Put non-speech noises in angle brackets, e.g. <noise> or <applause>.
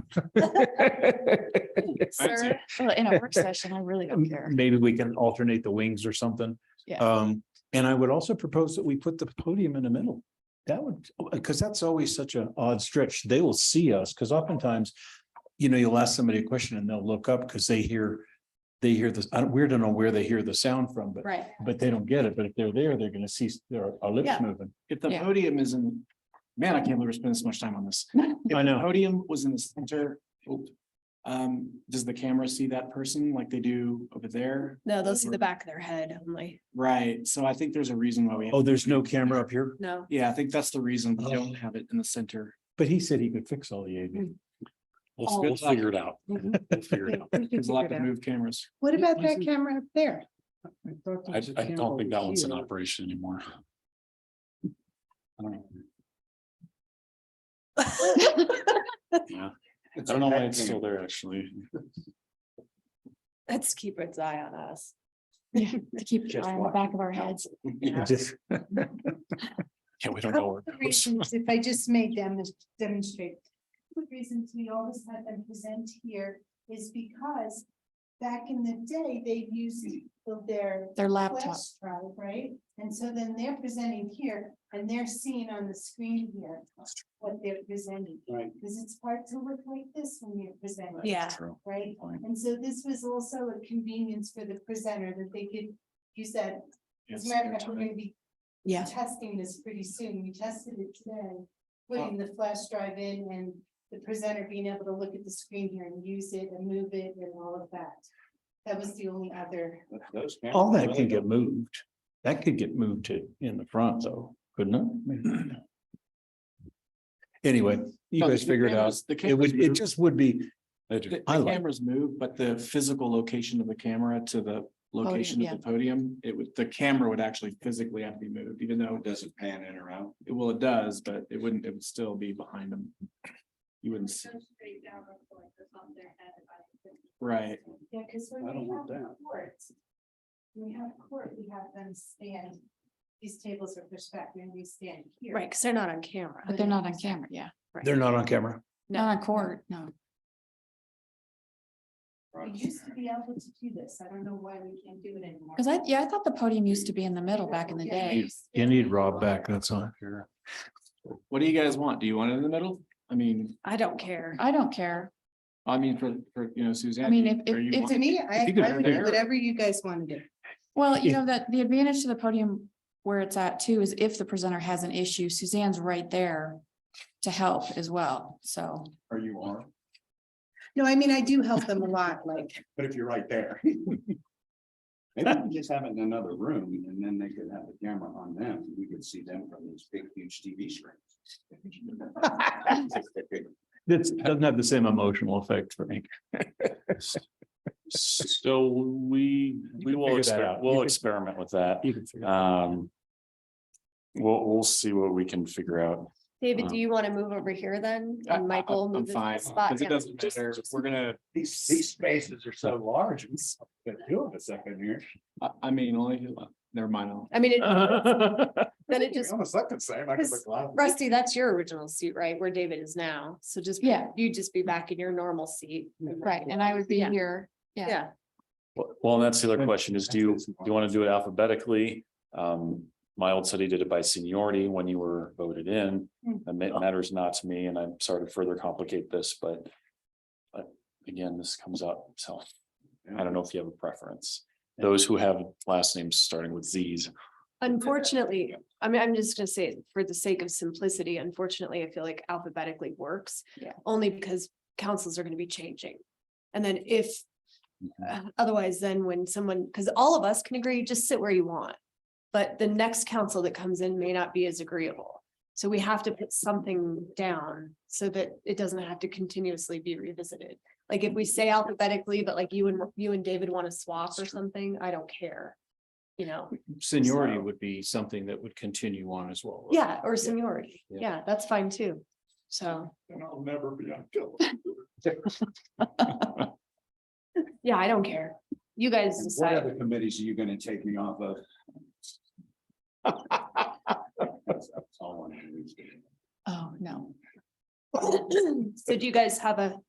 <laughs> Sir, well, in a work session, I really Um, don't care. Maybe we can alternate the wings or something. Yeah. Um, and I would also propose that we put the podium in the middle. That would, because that's always such an odd stretch. They will see us, because oftentimes, you know, you'll ask somebody a question and they'll look up because they hear, they hear this, I don't, we don't know where they hear the sound from, but, Right. but they don't get it. But if they're there, they're gonna see their our lips Yeah. moving. If the Yeah. podium is in, man, I can't believe we're spending so much time on this. If I the know. Podium was in the center. oop, Um, does the camera see that person like they do over there? No, they'll see the back of their head only. Right, so I think there's a reason why we. have- Oh, there's no camera up here, No. Yeah, I think that's the reason we Oh. don't have it in the center. but he said he could fix all the AV. Mm. We'll, Oh, we'll we'll figure it out. We'll figure it out. There's a lot of move cameras. What about Was that it- camera up there? I, I don't think that one's in operation anymore. I don't know. Yeah, I don't know why it's still there, actually. Let's keep its eye on us. Yeah, to keep an eye on the back of our heads. <laughs> Yeah, Just- we don't know where. The it goes. reasons, If I just may dem- demonstrate, the reasons we always had them present here is because back in the day, they used their Their laptop. flash drive, right? And so then they're presenting here and they're seeing on the screen here what they're presenting. Right. Because it's hard to look like this when you're presenting. Yeah. True. Right? Fine. And so this was also a convenience for the presenter that they could use that. As Yes, a matter of they're fact, we're tight. gonna be Yeah. testing this pretty soon. We tested it today. Putting the flash drive in and the presenter being able to look at the screen here and use it and move it and all of that. That was the only other. All that can get moved. That could get moved to in the front though, couldn't it? <clears throat> Anyway, you No, the- guys the figure it out. cameras- The It cameras, would, it move. just would be, They The- do. the I like- cameras move, but the physical location of the camera to the location of yeah. the podium, it would, the camera would actually physically have to be moved, even though it doesn't pan in or out. It- Well, it does, but it wouldn't, it would still be behind them. You wouldn't see, right? Yeah, because when I don't we want have that. court. when We have court, we have them stand. These tables are pushed back and we stand here. Right, because they're not on camera. But they're not on camera, yeah. they're not on camera. Not on court, no. We used to be able to do this. I don't know why we can't do it anymore. Cause I, yeah, I thought the podium used to be in the middle back in the day. You need Rob back, that's all. What do you guys want? Do you want it in the middle? I mean, I don't care. I don't care. I mean, for, for, you know, Suzanne. I mean, if, are you if, want- if, me, I- you could I have would do there. whatever you guys want to do. well, you if- know, that the advantage to the podium where it's at too is if the presenter has an issue, Suzanne's right there to help as well, so. Or you are, No, I mean, I do help them a lot, like, but if you're right there. Maybe we just have it in another room and then they could have the camera on them. We could see them from these big huge TV screens. That's, doesn't have the same emotional effect for me. So we, You we can will, figure that exper- out. You we'll can- experiment with that. You can figure it out. Um. We'll, we'll see what we can figure out. David, do you want to move over here then? I- I- And Michael? I'm move this fine, spot because it down? doesn't Just- matter. just- We're gonna, These, these spaces are so large. We got two of us up in here. I, I mean, only, never mind. I'll- I mean, it- then it It just, almost looked the same. I could look loud. Rusty, that's your original seat, right? Where David is now. So just, Yeah. you'd just be back in your normal seat. Right, and I would be Yeah. here. Yeah. Yeah. Well, well, and that's the other question is, do you, do you want to do it alphabetically? Um, my old city did it by seniority when you were voted in. Hmm. And it matters not to me, and I'm sorry to further complicate this, but. But again, this comes up, so I don't know if you have a preference. Those who have last names starting with Z's. Unfortunately, I mean, I'm just gonna say, for the sake of simplicity, unfortunately, I feel like alphabetically works. Yeah. Only because councils are gonna be changing. And then if, Mhm. uh, otherwise then when someone, because all of us can agree, just sit where you want. But the next council that comes in may not be as agreeable. So we have to put something down so that it doesn't have to continuously be revisited. Like if we say alphabetically, but like you and, you and David want to swap or something, I don't care. You know? Seniority So- would be something that would continue on as well. Yeah, or seniority. Yeah. Yeah, that's fine too. So, And I'll never be unkillable. yeah, I don't care. You guys And What decide. other committees are you gonna take me off of? That's all I wanted to do. Oh, no. <clears throat> So do you guys have a